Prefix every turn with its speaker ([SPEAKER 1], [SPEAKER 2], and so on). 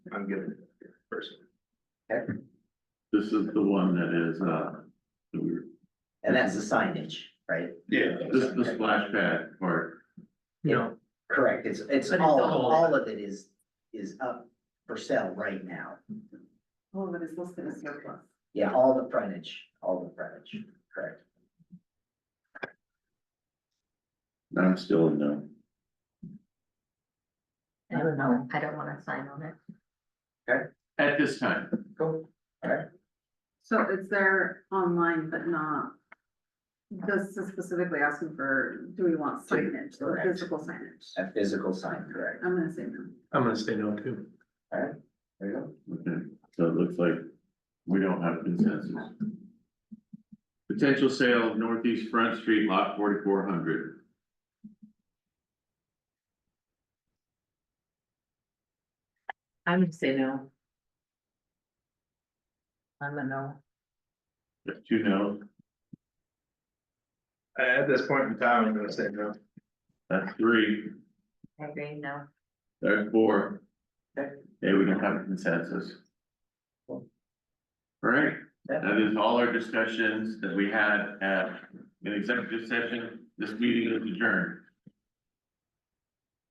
[SPEAKER 1] get it first.
[SPEAKER 2] This is the one that is, uh, that we were-
[SPEAKER 3] And that's the signage, right?
[SPEAKER 1] Yeah,
[SPEAKER 2] this, the splash pad part,
[SPEAKER 3] You know, correct, it's, it's
[SPEAKER 4] But it's
[SPEAKER 3] all,
[SPEAKER 4] all-
[SPEAKER 3] all of it is, is up for sale right now.
[SPEAKER 4] All of it is listed as surplus.
[SPEAKER 3] Yeah, all the frontage, all the frontage, correct.
[SPEAKER 2] I'm still in no.
[SPEAKER 5] I don't know, I don't wanna sign on it.
[SPEAKER 2] At this time,
[SPEAKER 3] Cool.
[SPEAKER 4] So it's there online, but not. This is specifically asking for, do we want signage, or
[SPEAKER 3] Correct.
[SPEAKER 4] physical signage?
[SPEAKER 3] A physical sign, correct.
[SPEAKER 4] I'm gonna say no.
[SPEAKER 1] I'm gonna say no too.
[SPEAKER 3] There you go.
[SPEAKER 2] okay, so it looks like we don't have consensus. Potential sale of Northeast Front Street Lot forty-four hundred.
[SPEAKER 5] I'm gonna say no. I'm a no.
[SPEAKER 2] There's two no,
[SPEAKER 1] At this point in time, I'm gonna say no.
[SPEAKER 2] that's three,
[SPEAKER 5] I agree, no.
[SPEAKER 2] there's four.
[SPEAKER 3] Okay.
[SPEAKER 2] Hey, we don't have a consensus. All right,
[SPEAKER 3] Yeah.
[SPEAKER 2] That is all our discussions that we had at an executive session. This meeting is adjourned.